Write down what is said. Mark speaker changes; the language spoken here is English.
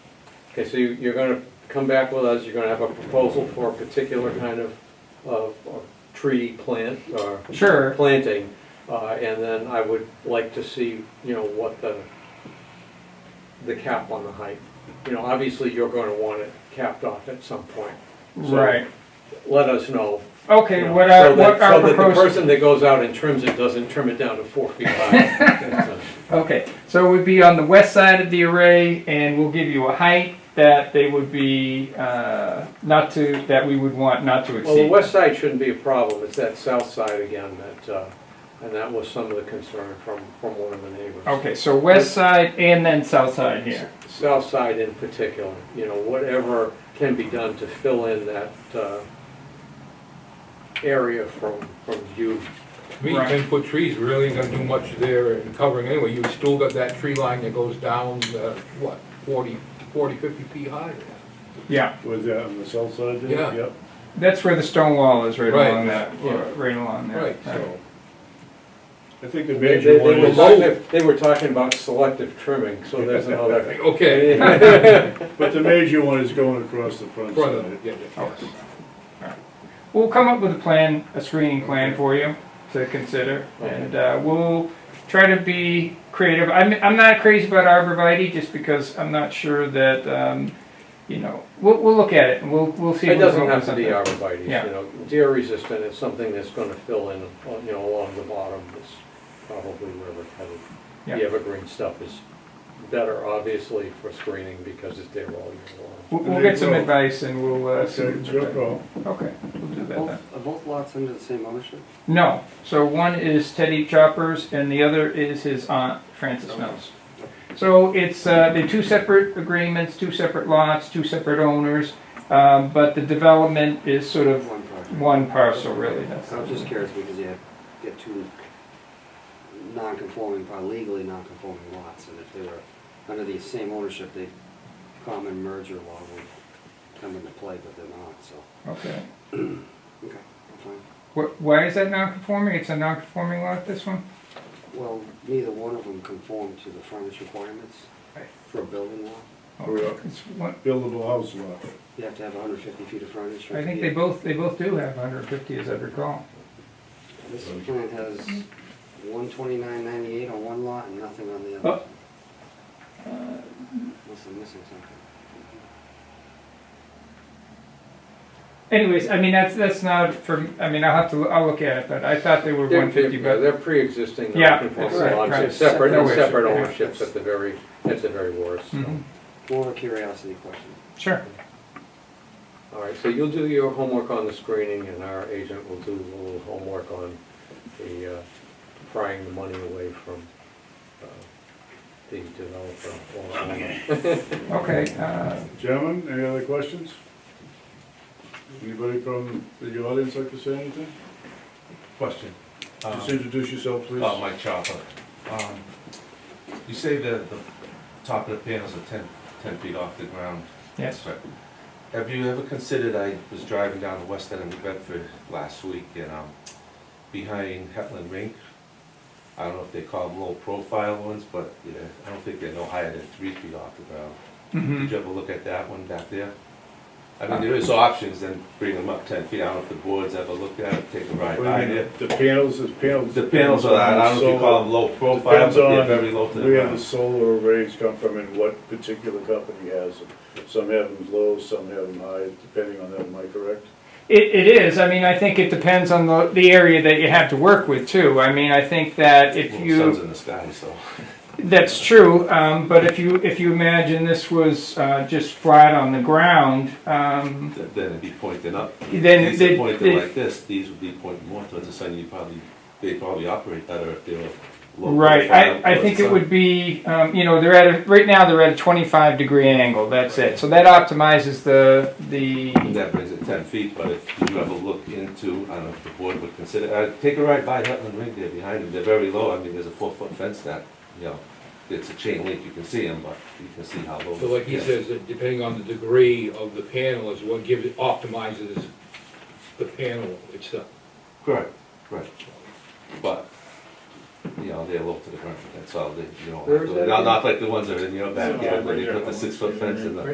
Speaker 1: Okay, so you- you're gonna come back with us, you're gonna have a proposal for a particular kind of, of of tree plant or
Speaker 2: Sure.
Speaker 1: planting. uh, And then I would like to see, you know, what the, the cap on the height. You know, obviously, you're gonna want it capped off at some point. So
Speaker 2: Right.
Speaker 1: Let us know. you
Speaker 2: Okay,
Speaker 1: know,
Speaker 2: what I,
Speaker 1: so that-
Speaker 2: what our
Speaker 1: So that the
Speaker 2: proposed,
Speaker 1: person that goes out and trims it doesn't trim it down to four feet high. uh,
Speaker 2: okay, so it would be on the west side of the array and we'll give you a height that they would be, uh, not to, that we would want not to
Speaker 1: Well, the
Speaker 2: exceed.
Speaker 1: west side shouldn't be a problem, it's that south side again that, uh, and that was some of the concern from, from one of the neighbors.
Speaker 2: Okay, so west side and then south side here.
Speaker 1: South side in particular, you know, whatever can be done to fill in that, uh, area from, from view.
Speaker 3: To Me,
Speaker 2: Right.
Speaker 3: ten foot trees really ain't gonna do much there and covering anyway, you still got that tree line that goes down, uh, what, 40, 40, 50 feet high?
Speaker 2: Yeah,
Speaker 4: Was that on the south side there?
Speaker 3: Yeah.
Speaker 4: Yep.
Speaker 2: that's where the stone wall is right
Speaker 3: Right.
Speaker 2: along that,
Speaker 3: Yeah.
Speaker 2: right along there.
Speaker 3: Right, so,
Speaker 4: I think the
Speaker 1: They, they
Speaker 4: major one
Speaker 1: were
Speaker 4: is,
Speaker 3: low.
Speaker 1: talking, they were talking about selective trimming, so there's another.
Speaker 3: okay.
Speaker 4: but the major one is going across the front
Speaker 3: Front of it,
Speaker 4: side.
Speaker 3: yeah, yeah, yes.
Speaker 2: We'll come up with a plan, a screening plan for you to consider, and uh, we'll try to be creative. I'm, I'm not crazy about arborvitae just because I'm not sure that, um, you know, we'll, we'll look at it and we'll, we'll see.
Speaker 1: It
Speaker 2: if we can
Speaker 1: doesn't
Speaker 2: come up
Speaker 1: have
Speaker 2: with
Speaker 1: to be
Speaker 2: something.
Speaker 1: arborvitae, you
Speaker 2: Yeah.
Speaker 1: know, deer resistant is something that's gonna fill in, uh, you know, along the bottom, is probably where we're headed.
Speaker 2: Yeah.
Speaker 1: The evergreen stuff is better, obviously, for screening because it's there all year long.
Speaker 2: We'll, we'll get some
Speaker 4: Well,
Speaker 2: advice and we'll uh, see.
Speaker 4: Okay, it's your call.
Speaker 2: Okay, we'll do that then.
Speaker 5: Both, are both lots under the same ownership?
Speaker 2: No, so one is Teddy Choppers and the other is his aunt Frances Mills. So it's, uh, they're two separate agreements, two separate lots, two separate owners, um, but the development is sort of
Speaker 5: One project?
Speaker 2: one parcel, really, that's.
Speaker 5: I was just curious because you have, get two non-conforming, probably legally non-conforming lots, and if they were under the same ownership, the common merger law would come into play, but they're not, so,
Speaker 2: Okay.
Speaker 5: okay, I'm fine.
Speaker 2: Wh- Why is that non-conforming? It's a non-conforming lot, this one?
Speaker 5: Well, neither one of them conformed to the furnace requirements for a building lot.
Speaker 4: Correct.
Speaker 2: It's one,
Speaker 4: Buildable house lot.
Speaker 5: You have to have hundred fifty feet of furnace.
Speaker 2: I think they both, they both do have hundred fifty, as I recall.
Speaker 5: This plan has one twenty-nine ninety-eight on one lot and nothing on the
Speaker 2: Oh.
Speaker 5: other. Must have missing something.
Speaker 2: Anyways, I mean, that's, that's not for, I mean, I'll have to, I'll look at it, but I thought they were
Speaker 1: They're-
Speaker 2: one fifty,
Speaker 1: they're-
Speaker 2: but,
Speaker 1: They're pre-existing,
Speaker 2: Yeah,
Speaker 1: non-conforming
Speaker 2: right,
Speaker 1: lots,
Speaker 2: right.
Speaker 1: it's separate,
Speaker 2: No
Speaker 1: it's
Speaker 2: issue.
Speaker 1: separate
Speaker 2: Yeah.
Speaker 1: ownerships at the very, at the very worst, so.
Speaker 2: Mhm.
Speaker 5: More of a curiosity question.
Speaker 2: sure.
Speaker 1: All right, so you'll do your homework on the screening, and our agent will do a little homework on the uh, prying the money away from uh, the developer. or owner.
Speaker 2: Okay, uh,
Speaker 4: Gentlemen, any other questions? Anybody from the audience like to say anything?
Speaker 6: Question. Um,
Speaker 4: Just introduce yourself, please.
Speaker 6: Oh, Mike Chopper. Um, You say the, the top of the panels are ten, ten feet off the ground.
Speaker 2: yes,
Speaker 6: Right. Have you ever considered, I was driving down the west end of New Bedford last week and, um, behind Hetland Rink, I don't know if they call them low profile ones, but, yeah, I don't think they're no higher than three feet off the ground.
Speaker 2: hmm
Speaker 6: Did you ever look at that one back there? I mean, there is options, then bring them up ten feet. I don't know if the board's ever looked at it, take a ride
Speaker 4: What
Speaker 6: by
Speaker 4: do you
Speaker 6: it.
Speaker 4: mean, The panels, the panels.
Speaker 6: The panels are, I don't know if you call them low profile, but
Speaker 4: Depends
Speaker 6: they're
Speaker 4: on
Speaker 6: very low to the
Speaker 4: where the
Speaker 6: ground.
Speaker 4: solar arrays come from and what particular company has them. Some have them low, some have them high, depending on that, am I correct?
Speaker 2: It, it is. I mean, I think it depends on the, the area that you have to work with too. I mean, I think that if
Speaker 6: Little
Speaker 2: you,
Speaker 6: Sun's in the sky, so.
Speaker 2: that's true. Um, but if you, if you imagine this was, uh, just flat on the ground, um,
Speaker 6: th- Then it'd be pointing up.
Speaker 2: then
Speaker 6: These are
Speaker 2: they,
Speaker 6: pointing
Speaker 2: they,
Speaker 6: like this, these would be pointing more towards the sun, you probably, they probably operate better if they were low profile.
Speaker 2: right. I, I
Speaker 6: towards
Speaker 2: think
Speaker 6: the
Speaker 2: it
Speaker 6: sun.
Speaker 2: would be, um, you know, they're at a, right now they're at a 25 degree angle. That's it. So that optimizes the, the,
Speaker 6: And that brings it ten feet, but if you ever look into, I don't know if the board would consider, uh, take a ride by Hutton Ring there behind them, they're very low, I mean, there's a four-foot fence that, you know, it's a chain link, you can see them, but you can see how low.
Speaker 3: So like he
Speaker 6: it is.
Speaker 3: says, that depending on the degree of the panel is what gives, optimizes the panel itself.
Speaker 6: Correct, correct. But, you know, they're low to the ground, that's all, they, you know,
Speaker 1: Where is that
Speaker 6: not, not like the ones that are in your backyard, where you put the six-foot fence in the.